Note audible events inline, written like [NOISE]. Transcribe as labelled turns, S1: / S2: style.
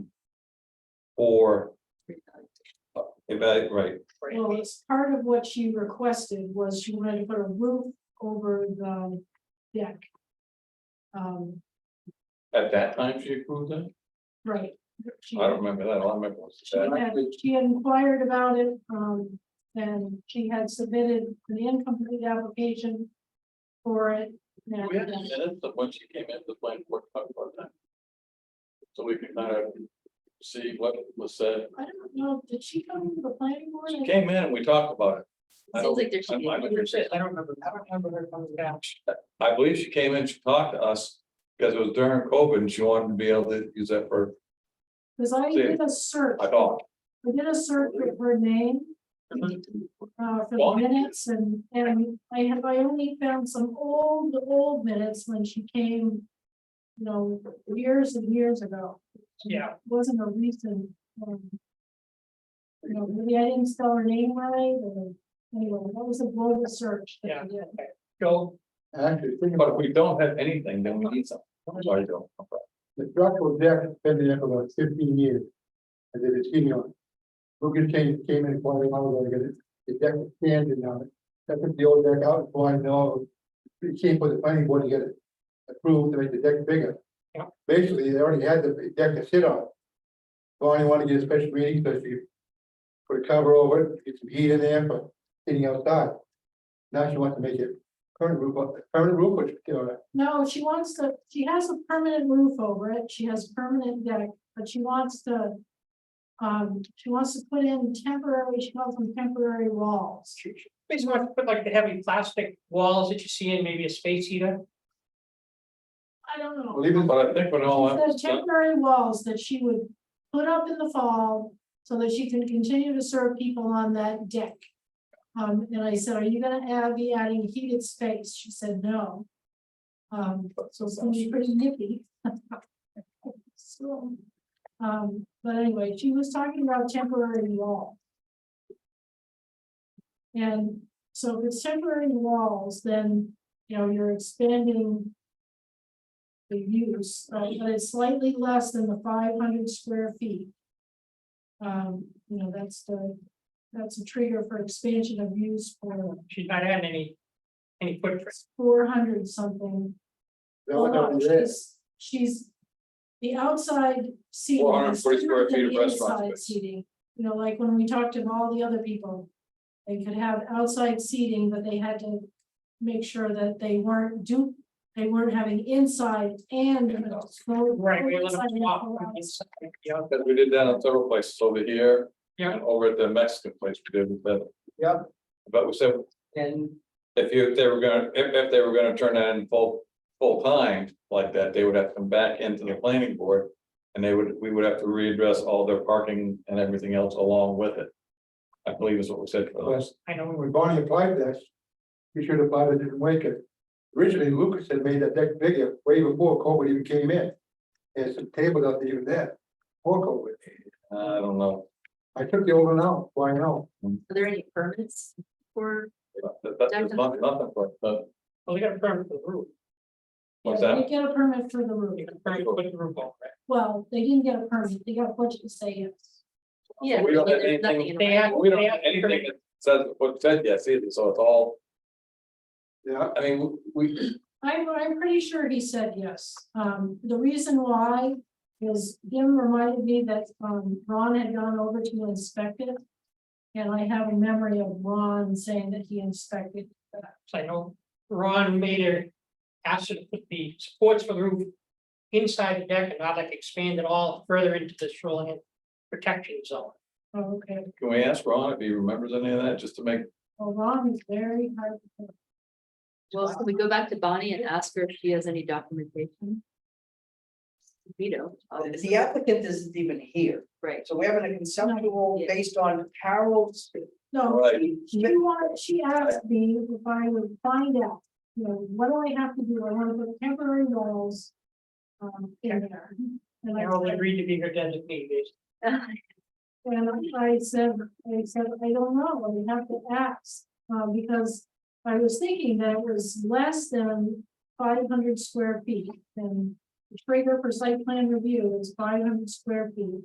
S1: or. Evaluate, right,
S2: Well, it's part of what she requested was she wanted to put a roof over the deck. Um,
S1: at that time she approved it,
S2: right. She-
S1: I don't remember that, all I remember was
S2: She
S1: that.
S2: had, she had inquired about it, um, and she had submitted an incomplete application for it. and- uh,
S1: We had the minutes of when she came in, the planning board talked about that. So we can kind of see what was said,
S2: I don't know, did she come to the planning board?
S1: she came in and we talked about it. I
S3: Seems
S1: don't-
S3: like there should be.
S1: I- I would say-
S3: don't remember. I don't remember her coming down.
S1: I believe she came in, she talked to us, because it was during COVID and she wanted to be able to use that for
S2: Because I did a search,
S1: a dog.
S2: I did a search for her name,
S1: Mm-hmm.
S2: uh, for the
S1: Well-
S2: minutes and, and I have, I only found some old, old minutes when she came. You know, years and years ago.
S3: Yeah.
S2: Wasn't a recent, um. You know, maybe I didn't spell her name right, or, anyway, that was a global search. that I did.
S3: Go.
S4: Actually, think
S1: But
S4: about
S1: if we don't have anything, then we need something. Sorry, Joe.
S4: it, the structural deck has been there for about fifteen years. And they've been sitting on. it. Lucas came, came in quite a while ago, because it- the deck was standing now, that took the old deck out, so I know. You can't put the planning board to get it approved to make the deck bigger.
S3: Yeah.
S4: Basically, they already had the deck to sit on. So I wanted to get a special meeting, so you. Put a cover over it, get some heat in there for sitting outside. Now she wants to make it permanent roof, on- permanent roof, which, you know,
S2: No, she wants to, she has a permanent roof over it, she has permanent deck, but she wants to. Um, she wants to put in temporary, she calls them temporary walls.
S3: Basically, want to put like the heavy plastic walls that you see in maybe a space heater.
S2: I don't know.
S4: leave it
S1: But I think when all
S2: The
S1: that,
S2: temporary walls that she would put up in the fall so that she can continue to serve people on that deck. Um, and I said, are you gonna add, be adding heated space? She said, no. Um, so it's gonna be pretty nippy. [LAUGHS] So, um, but anyway, she was talking about temporary wall. And so if it's temporary walls, then, you know, you're expanding the use, uh, but it's slightly less than the five hundred square feet. Um, you know, that's the, that's a trigger for expansion of use for
S3: She's not adding any, any footprint.
S2: four hundred something.
S4: That was
S2: Oh, no,
S4: already there.
S2: she's- She's, the outside seating. is
S1: 440 square
S2: different
S1: feet
S2: than
S1: of restaurant
S2: inside
S1: space.
S2: Seating, you know, like when we talked to all the other people, they could have outside seating, but they had to make sure that they weren't do, they weren't having inside and.
S3: Right. we let them
S2: Outside and
S3: walk
S2: outside.
S3: inside, you know,
S1: because we did that on several places over here.
S3: Yeah.
S1: and Over at the Mexican place we did with that.
S4: Yeah.
S1: But we said,
S3: And
S1: if you, if they were gonna, if, if they were gonna turn that in full, full time like that, they would have to come back into the planning board. And they would, we would have to readdress all their parking and everything else along with it. I believe is what we said Uh, for those.
S3: I know we were
S4: When Bonnie applied for this, he should have applied it didn't wake it. Originally, Lucas had made that deck bigger way before COVID even came in. There's some tables out there even there, before COVID.
S1: I don't know,
S4: I took the old one out, why now?
S5: Are there any permits for,
S1: that, that's just not- nothing, but, but,
S3: well, they got a permit for the roof.
S1: what's
S2: Yeah, They
S1: that?
S2: get a permit for the roof.
S3: They got a permit to put the roof on, right?
S2: Well, they didn't get a permit. They got a budget to say yes.
S5: yeah,
S1: We don't have
S5: there's nothing
S1: anything,
S5: in
S3: They have,
S1: we don't
S3: they
S1: have
S3: have.
S1: anything that says, what said yes either, so it's all,
S4: Yeah,
S1: I mean, we,
S2: I'm, I'm pretty sure he said yes. Um, the reason why is Jim reminded me that, um, Ron had gone over to inspect it. And I have a memory of Ron saying that he inspected that.
S3: So I know Ron made a, asked her to put the supports for the roof inside the deck and not like expand it all further into the shoreline protection zone.
S2: Oh, Okay,
S1: can we ask Ron if he remembers any of that, just to make,
S2: well, Ron is very hard. to-
S5: well, can we go back to Bonnie and ask her if she has any documentation? Veto. obviously.
S6: The applicant isn't even here,
S5: Right, [LAUGHS]
S6: so we're having a conceptual
S5: Yeah.
S6: based on Carol's.
S2: No,
S1: Right.
S2: she, she wanted, she asked me if I would find out, you know, what do I have to do? I want to put temporary walls. Um, in there. And I
S3: Carol
S2: said-
S3: agreed to be her designee, basically.
S2: And I said, I said, I don't know, we have to ask, uh, because I was thinking that it was less than five hundred square feet. And the trigger for site plan review is five hundred square feet.